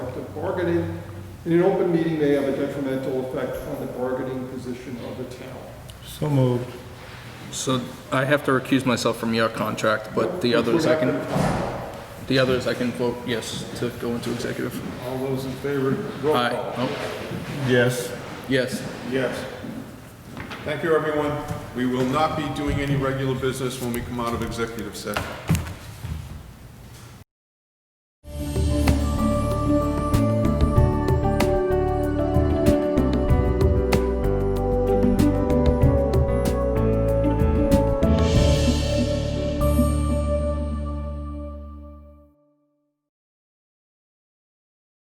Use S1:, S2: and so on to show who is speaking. S1: collective bargaining. In an open meeting may have a detrimental effect on the bargaining position of the town.
S2: So moved.
S3: So I have to recuse myself from your contract, but the others I can, the others I can vote yes to go into executive.
S4: All those in favor, roll
S3: Aye.
S4: call.
S3: Oh,
S2: Yes.
S3: yes.
S4: Yes. Thank you, everyone. We will not be doing any regular business when we come out of executive session.